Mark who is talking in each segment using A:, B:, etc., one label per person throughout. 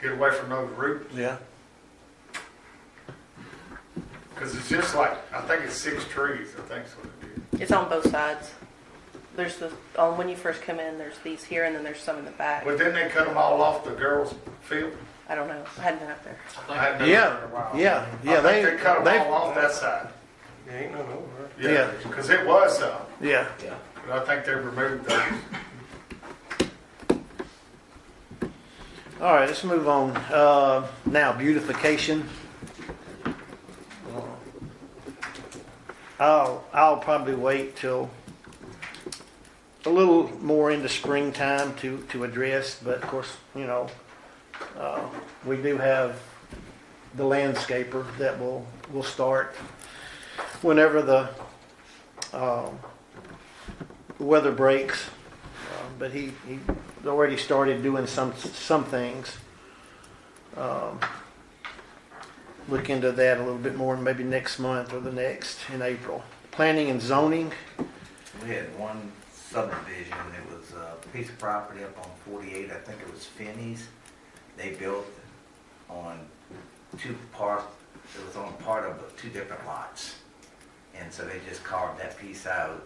A: get away from those roots.
B: Yeah.
A: Because it's just like, I think it's six trees, I think is what it is.
C: It's on both sides. There's the, on when you first come in, there's these here and then there's some in the back.
A: But then they cut them all off the girls' field.
C: I don't know. I hadn't been up there.
A: I hadn't been
B: Yeah,
A: there in a while.
B: yeah, yeah,
A: I think they
B: they-
A: cut
B: they-
A: them all off that side.
D: There ain't none over there.
A: Yeah,
B: Yeah.
A: because it was some,
B: Yeah.
A: but I think they removed those.
B: All right, let's move on. Uh, now, beautification. I'll, I'll probably wait till a little more into springtime to, to address, but of course, you know, uh, we do have the landscaper that will, will start whenever the, um, weather breaks. Uh, But he, he already started doing some, some things. Um, Look into that a little bit more, maybe next month or the next in April. Planning and zoning,
E: We had one subdivision, it was a piece of property up on 48, I think it was Finney's. They built on two parts, it was on part of two different lots. And so they just carved that piece out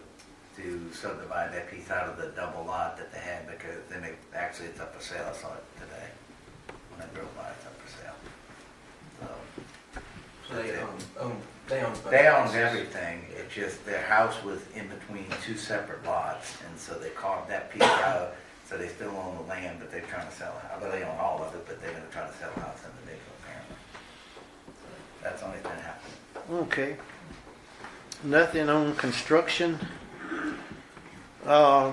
E: to subdivide that piece out of the double lot that they had because then it, actually it's up for sale, I saw it today. When I drove by, it's up for sale. So,
F: So they own, own, they own both.
E: They owned
F: houses.
E: everything, it just, their house was in between two separate lots, and so they carved that piece out, so they still own the land, but they're trying to sell it, although they own all of it, but they're gonna try to sell the house individually, apparently. That's the only thing that happened.
B: okay. Nothing on construction. Uh,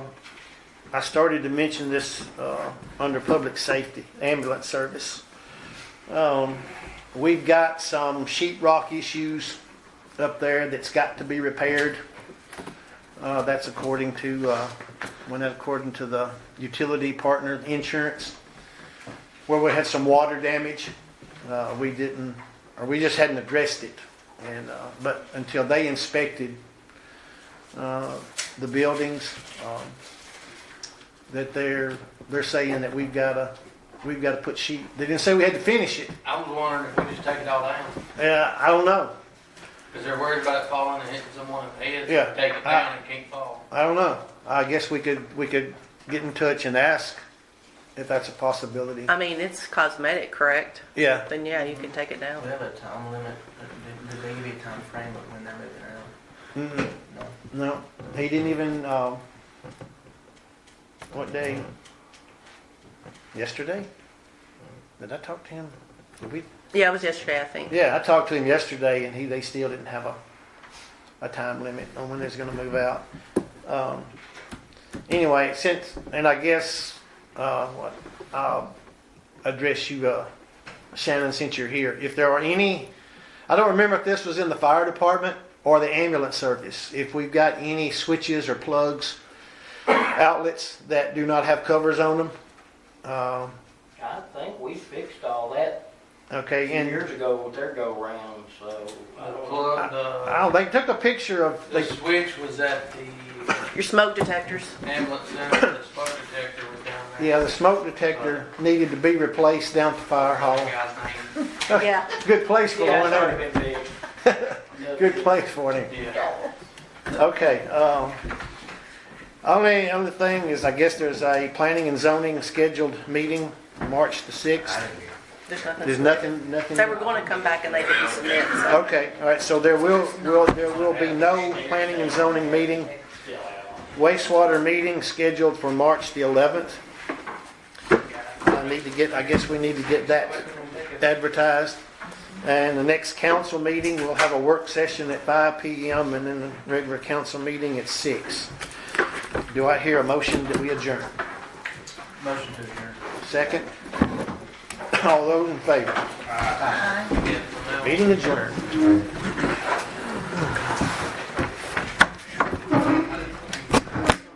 B: I started to mention this uh, under public safety, ambulance service. Um, We've got some sheetrock issues up there that's got to be repaired. Uh, That's according to, uh, when that according to the utility partner insurance, where we had some water damage. Uh, We didn't, or we just hadn't addressed it. And, uh, but until they inspected uh, the buildings, um, that they're, they're saying that we've got to, we've got to put sheet, they didn't say we had to finish it.
F: I was wondering if we just take it all down,
B: Yeah, I don't know.
F: because they're worried about it falling and hitting someone in the head. so
B: Yeah,
F: Take it
B: I-
F: down and it can't fall.
B: I don't know. I guess we could, we could get in touch and ask if that's a possibility.
C: I mean, it's cosmetic, correct?
B: Yeah,
C: Then yeah, you can take it down.
F: Do they have a time limit? Do- Do they give you a time frame of when they're moving around?
B: Mm-mm.
F: No.
B: no, he didn't even, um, what day? Yesterday? Did I talk to him? Did we?
C: Yeah, it was yesterday, I think.
B: Yeah, I talked to him yesterday and he, they still didn't have a, a time limit on when it's gonna move out. Um, anyway, since, and I guess, uh, what, I'll address you, uh, Shannon, since you're here. If there are any, I don't remember if this was in the fire department or the ambulance service. If we've got any switches or plugs, outlets that do not have covers on them, um,
G: I think we fixed all that a
B: okay,
G: few
B: and.
G: years ago with their go-round, so I
F: The
G: don't know.
F: plug, the,
B: Oh, they took a picture of,
F: the
B: they
F: switch was at the
C: Your smoke detectors.
F: ambulance center, the smoke detector was down there.
B: Yeah, the smoke detector needed to be replaced down at the fire
F: I
B: hall.
F: forgot his name.
C: Yeah.
B: Good place for
G: Yeah,
B: one,
G: it's
B: there.
G: already been big.
B: good place for him.
F: Yeah.
B: Okay, um, only other thing is, I guess there's a planning and zoning scheduled meeting, March the
E: I
B: sixth.
E: didn't hear.
C: There's nothing.
B: There's nothing, nothing.
C: They were going to come back and they didn't submit. So.
B: Okay, all right, so there will, will, there will be no planning and zoning meeting. Wastewater meeting scheduled for March the eleventh. I need to get, I guess we need to get that advertised. And the next council meeting, we'll have a work session at five PM and then the regular council meeting at six. Do I hear a motion that we adjourn?
F: Motion to adjourn.
B: Second? All those in favor?
F: Yeah, for now.
B: Meeting adjourned.